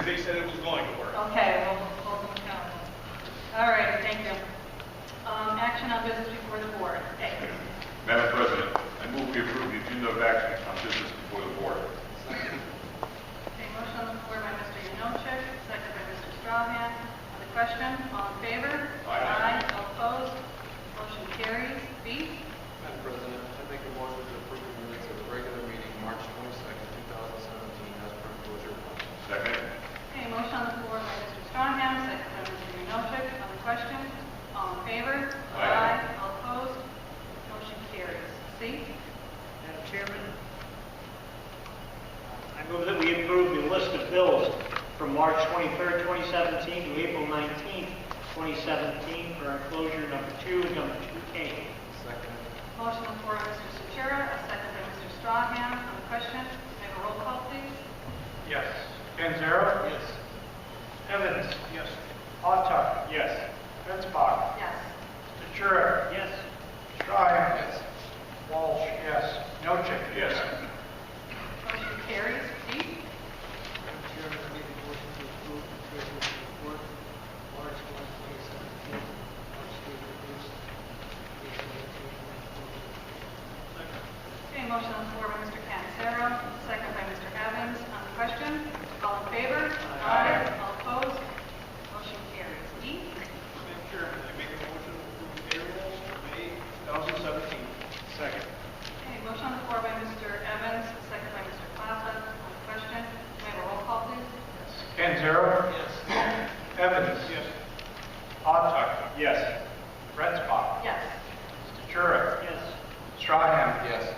said it was going to work. Okay, we'll hold them accountable. All right, thank you. Um, Action on business before the board. A. Madam President, I move we approve the agenda of action on business before the board. Okay, motion on the floor by Mr. Yanochek, second by Mr. Strahan. On the question, all in favor? Aye. All opposed? Motion carries. B. Madam President, I make a motion to approve the minutes of the regular meeting, March 22nd, 2017, as per enclosure. Second? Okay, motion on the floor by Mr. Strahan, second by Mr. Yanochek. On the question, all in favor? Aye. All opposed? Motion carries. C. Madam Chairman, I move that we approve the list of bills from March 23rd, 2017 to April 19th, 2017 for enclosure number two and number 2K. Second, Motion on the floor by Mr. Sotera, a second by Mr. Strahan. On the question, may I have a roll call, please? Yes. Panzera? Yes. Evans? Yes. Autar? Yes. Fitzpatrick? Yes. Ventura? Yes. Stryer? Yes. Walsh? Yes. Nocheck? Yes. Motion carries. D. Madam Chairman, I make a motion to approve the treasurer's report, March 1, 2017, March date reduced, April 19, Okay, motion on the floor by Mr. Cancero, second by Mr. Evans. On the question, all in favor? Aye. All opposed? Motion carries. E. Madam Chairman, I make a motion to approve payrolls for May 2017. Second. Okay, motion on the floor by Mr. Evans, second by Mr. Plaza. On the question, may I have a roll call, please? Panzera? Yes. Evans? Yes. Autar? Yes. Redspock? Yes. Ventura? Yes. Strahan? yes.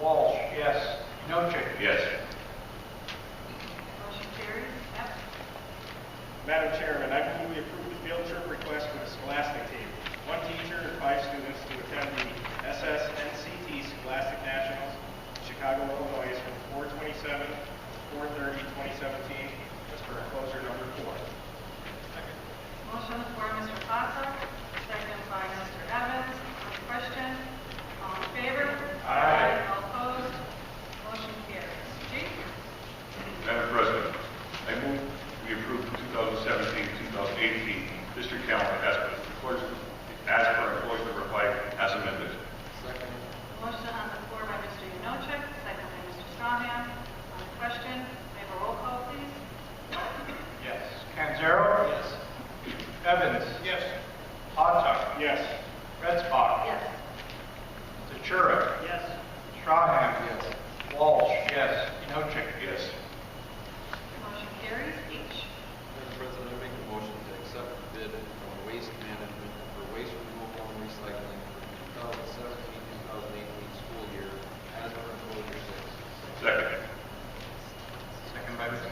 Walsh? Yes. Nocheck? Yes. Motion carries. F. Madam Chairman, I move we approve the field trip request for the Scholastic team. One teacher and five students to attend the SSNCT Scholastic Nationals, in Chicago, Illinois, from 4/27 to 4/30, 2017, as per enclosure number four. Motion on the floor by Mr. Plaza, second by Mr. Evans. On the question, all in favor? Aye. All opposed? Motion carries. G. Madam President, I move we approve the 2017-2018 district calendar as per enclosure- as per enclosure number five as amended. Second, Motion on the floor by Mr. Yanochek, second by Mr. Strahan. On the question, may I have a roll call, please? Yes. Panzera? Yes. Evans? Yes. Autar? Yes. Redspock? Yes. Ventura? Yes. Strahan? yes. Walsh? Yes. Inocheck? Yes. Motion carries. H. Madam President, I make a motion to accept the bid from Waste Management for waste removal and recycling for 2017-2018 school year, as per enclosure six. Second. Second by Mr.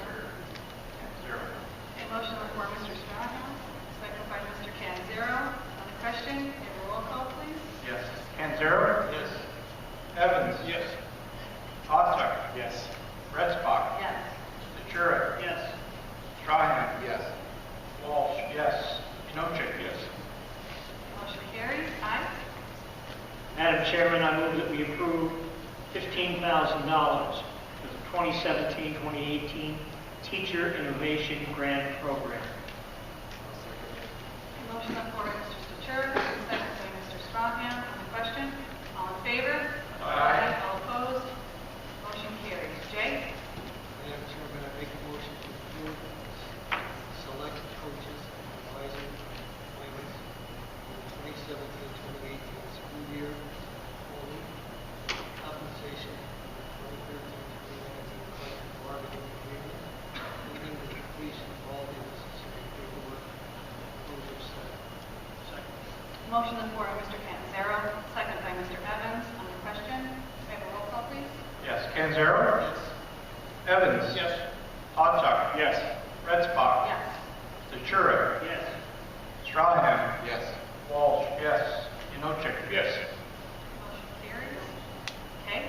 Panzera. Okay, motion on the floor, Mr. Strahan, second by Mr. Canzero. On the question, may I have a roll call, please? Yes. Panzera? Yes. Evans? Yes. Autar? Yes. Redspock? Yes. Ventura? Yes. Strahan? Yes. Walsh? Yes. Inocheck? Yes. Motion carries. I. Madam Chairman, I move that we approve $15,000 for the 2017-2018 Teacher Innovation Grant Program. Okay, Motion on the floor by Mr. Stachur, second by Mr. Strahan. On the question, all in favor? Aye. All opposed? Motion carries. J. 19. Madam Chairman, I make a motion to approve select coaches and advisor appointments for the 2017-2018 school year only. Compensation for the 2013-2019 collective bargaining agreement, including the completion of all the necessary paperwork. Closure seven. Second. Motion on the floor by Mr. Canzero, second by Mr. Evans. On the question, may I have a roll call, please? Yes. Panzera? Yes. Evans? Yes. Autar? Yes. Redspock? Yes. Ventura? Yes. Strahan? Yes. Walsh? Yes. Inocheck? Yes. Motion carries. Okay.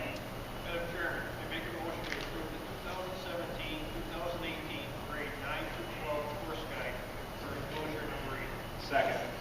Madam Chairman, I make a motion to approve the 2017-2018 grade 9 to 12 course guide for enclosure number 8. Second. Uh,